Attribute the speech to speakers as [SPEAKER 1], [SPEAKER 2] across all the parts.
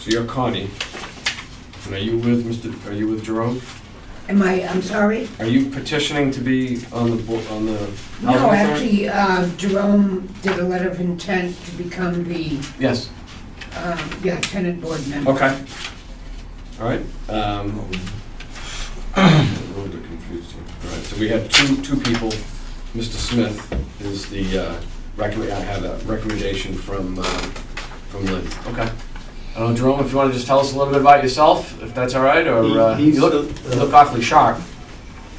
[SPEAKER 1] So you're Connie. And are you with Mr., are you with Jerome?
[SPEAKER 2] Am I, I'm sorry?
[SPEAKER 1] Are you petitioning to be on the, bo- on the housing
[SPEAKER 2] No,
[SPEAKER 1] authority?
[SPEAKER 2] actually, uh, Jerome did a letter of intent to become the,
[SPEAKER 1] Yes,
[SPEAKER 2] um, yeah, tenant board member.
[SPEAKER 1] okay. All right. um, I'm A little bit confused here. All right, so we have two, two people. Mr. Smith is the, uh, recommend, I have a recommendation from, uh, from Lynn. Okay. I don't know, Jerome, if you want to just tell us a little bit about yourself, if that's all right, or,
[SPEAKER 3] He-
[SPEAKER 1] uh,
[SPEAKER 3] he's
[SPEAKER 1] you look,
[SPEAKER 3] the-
[SPEAKER 1] you look awfully sharp.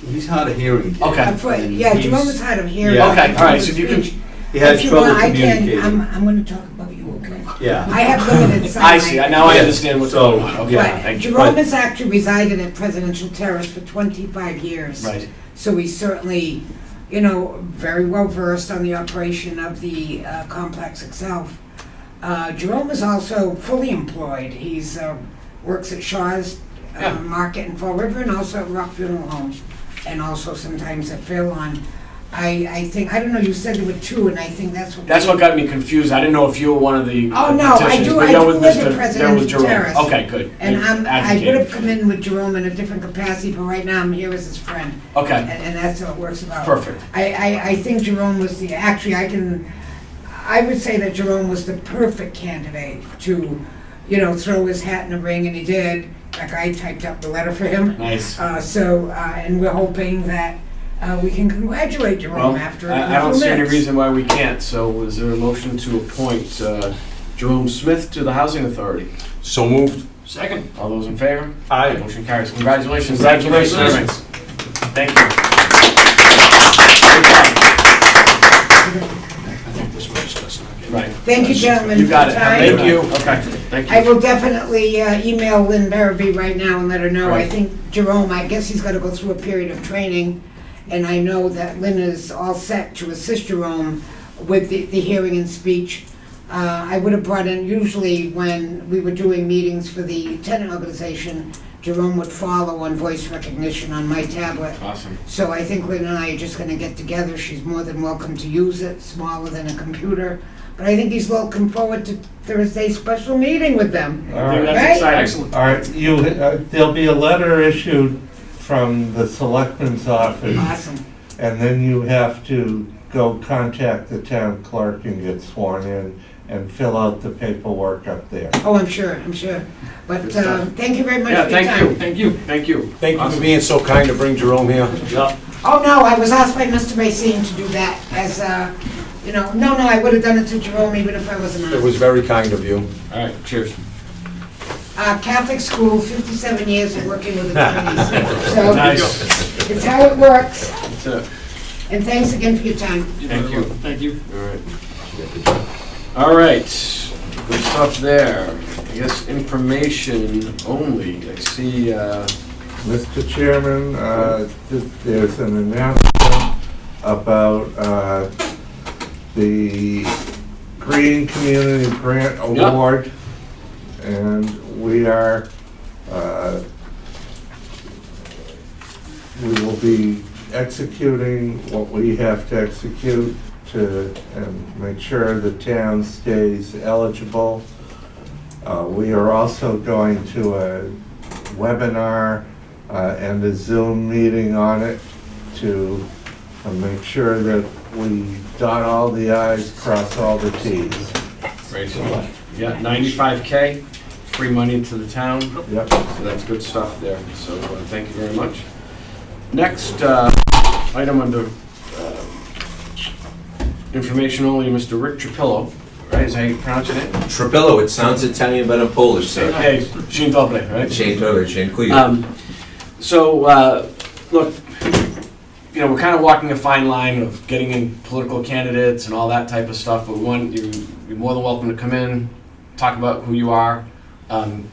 [SPEAKER 3] He's hard of hearing. Dave.
[SPEAKER 1] Okay.
[SPEAKER 2] I'm afraid-
[SPEAKER 3] And
[SPEAKER 2] Uh, Yeah, Jerome
[SPEAKER 3] he's-
[SPEAKER 2] was hard of hearing.
[SPEAKER 3] Yeah.
[SPEAKER 1] Okay, all right, so if you can-
[SPEAKER 2] Speech.
[SPEAKER 3] He has
[SPEAKER 2] If you
[SPEAKER 3] trouble
[SPEAKER 2] want, I can-
[SPEAKER 3] communicating.
[SPEAKER 2] I'm, I'm gonna talk about you, okay?
[SPEAKER 3] yeah.
[SPEAKER 2] I have limited sight.
[SPEAKER 1] I see, I- now I
[SPEAKER 3] Yes.
[SPEAKER 1] understand what's
[SPEAKER 3] So-
[SPEAKER 1] going on, okay,
[SPEAKER 2] Right.
[SPEAKER 1] thank you.
[SPEAKER 2] Jerome
[SPEAKER 1] Right.
[SPEAKER 2] has actually resided at Presidential Terrace for twenty-five years.
[SPEAKER 1] Right,
[SPEAKER 2] So he's certainly, you know, very well versed on the operation of the uh, complex itself. Uh, Jerome is also fully employed. He's, uh, works at Shaw's uh,
[SPEAKER 1] Yeah.
[SPEAKER 2] Market in Fall River and also at Rock Funeral Home, and also sometimes at Fairlawn. I, I think, I don't know, you said there were two, and I think that's what.
[SPEAKER 1] that's what got me confused, I didn't know if you were one of the uh,
[SPEAKER 2] Oh, no, I
[SPEAKER 1] petitioners,
[SPEAKER 2] do-
[SPEAKER 1] but
[SPEAKER 2] I
[SPEAKER 1] you're
[SPEAKER 2] do
[SPEAKER 1] with
[SPEAKER 2] live at
[SPEAKER 1] Mr. you're
[SPEAKER 2] Presidential
[SPEAKER 1] with Jerome.
[SPEAKER 2] Terrace.
[SPEAKER 1] Okay, good.
[SPEAKER 2] And I'm, I
[SPEAKER 1] Advocate.
[SPEAKER 2] would have come in with Jerome in a different capacity, but right now I'm here as his friend, and,
[SPEAKER 1] Okay,
[SPEAKER 2] and that's how it works about.
[SPEAKER 1] perfect,
[SPEAKER 2] I, I, I think Jerome was the, actually, I can, I would say that Jerome was the perfect candidate to, you know, throw his hat in the ring, and he did. Like, I typed up the letter for him.
[SPEAKER 1] nice.
[SPEAKER 2] Uh, so, uh, and we're hoping that, uh, we can congratulate
[SPEAKER 1] Well,
[SPEAKER 2] Jerome after. a
[SPEAKER 1] I I don't
[SPEAKER 2] few
[SPEAKER 1] see any
[SPEAKER 2] minutes.
[SPEAKER 1] reason why we can't, so is there a motion to appoint uh, Jerome Smith to the Housing Authority?
[SPEAKER 4] So moved.
[SPEAKER 1] Second. All those in favor?
[SPEAKER 4] Aye.
[SPEAKER 1] Motion carries, congratulations. Thank you for serving.
[SPEAKER 4] Congratulations.
[SPEAKER 1] Thank you. Right.
[SPEAKER 2] Thank you, gentlemen.
[SPEAKER 1] You
[SPEAKER 2] for
[SPEAKER 1] got it.
[SPEAKER 2] your time.
[SPEAKER 1] Thank you. Okay, thank you.
[SPEAKER 2] I will definitely uh, email Lynn Barabee right now and let her know. I
[SPEAKER 1] Right.
[SPEAKER 2] think Jerome, I guess he's gotta go through a period of training, and I know that Lynn is all set to assist Jerome with the, the hearing and speech. Uh, I would have brought in, usually when we were doing meetings for the tenant organization, Jerome would follow on voice recognition on my tablet.
[SPEAKER 1] Awesome.
[SPEAKER 2] So I think Lynn and I are just gonna get together, she's more than welcome to use it, smaller than a computer. But I think he's looking forward to Thursday's special meeting with them.
[SPEAKER 3] All right.
[SPEAKER 2] Right?
[SPEAKER 1] That's exciting. Excellent.
[SPEAKER 4] All right, you, uh, there'll be a letter issued from the selectman's office,
[SPEAKER 2] Awesome.
[SPEAKER 4] and then you have to go contact the town clerk and get sworn in and fill out the paperwork up there.
[SPEAKER 2] Oh, I'm sure, I'm sure. But
[SPEAKER 1] Good
[SPEAKER 2] uh,
[SPEAKER 1] stuff.
[SPEAKER 2] thank you very much
[SPEAKER 1] Yeah,
[SPEAKER 2] for your
[SPEAKER 1] thank you,
[SPEAKER 2] time.
[SPEAKER 1] thank you, thank you.
[SPEAKER 3] Thank you for
[SPEAKER 1] Awesome.
[SPEAKER 3] being so kind to bring Jerome here.
[SPEAKER 1] Yeah.
[SPEAKER 2] Oh, no, I was asked by Mr. Racine to do that as, uh, you know, no, no, I would have done it to Jerome even if I wasn't
[SPEAKER 3] It
[SPEAKER 2] asked.
[SPEAKER 3] was very kind of you.
[SPEAKER 1] All right, cheers.
[SPEAKER 2] Uh, Catholic school, 57 years of working with attorneys. So
[SPEAKER 1] Nice.
[SPEAKER 2] it's how it works.
[SPEAKER 1] That's it.
[SPEAKER 2] And thanks again for your time.
[SPEAKER 1] Thank you.
[SPEAKER 5] Thank you.
[SPEAKER 1] All right. All right, good stuff there. I guess information only. I see, uh,
[SPEAKER 4] Mr. Chairman, uh, th- there's an announcement about uh, the Green Community Grant
[SPEAKER 1] Yeah.
[SPEAKER 4] Award. And we are, uh, we will be executing what we have to execute to and make sure the town stays eligible. Uh, We are also going to a webinar uh, and a Zoom meeting on it to uh, make sure that we dot all the i's, cross all the t's.
[SPEAKER 1] right, yeah, ninety-five K, free money to the town.
[SPEAKER 4] Yep.
[SPEAKER 1] So that's good stuff there, so uh, thank you very much. Next, uh, item under uh, information only, Mr. Rick Trapillo, right, is how you pronounce it?
[SPEAKER 6] Trapillo, it sounds Italian but I'm Polish, sir.
[SPEAKER 1] Hey, Jean Doble, right?
[SPEAKER 6] Dzień dobry, dziękuję.
[SPEAKER 1] Um, so, uh, look, you know, we're kind of walking a fine line of getting in political candidates and all that type of stuff, but one, you, you're more than welcome to come in, talk about who you are, um,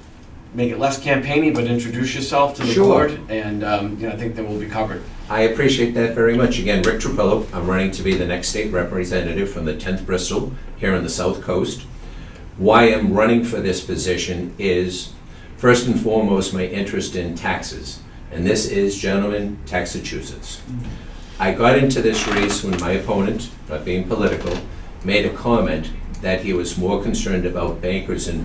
[SPEAKER 1] make it less campaigny, but introduce yourself to the
[SPEAKER 6] Sure.
[SPEAKER 1] board, and, um, you know, I think then we'll be covered.
[SPEAKER 6] I appreciate that very much. Again, Rick Trapillo, I'm running to be the next state representative from the 10th Bristol here on the South Coast. Why I'm running for this position is, first and foremost, my interest in taxes. And this is, gentlemen, Taxachusetts. I got into this race when my opponent, not being political, made a comment that he was more concerned about bankers and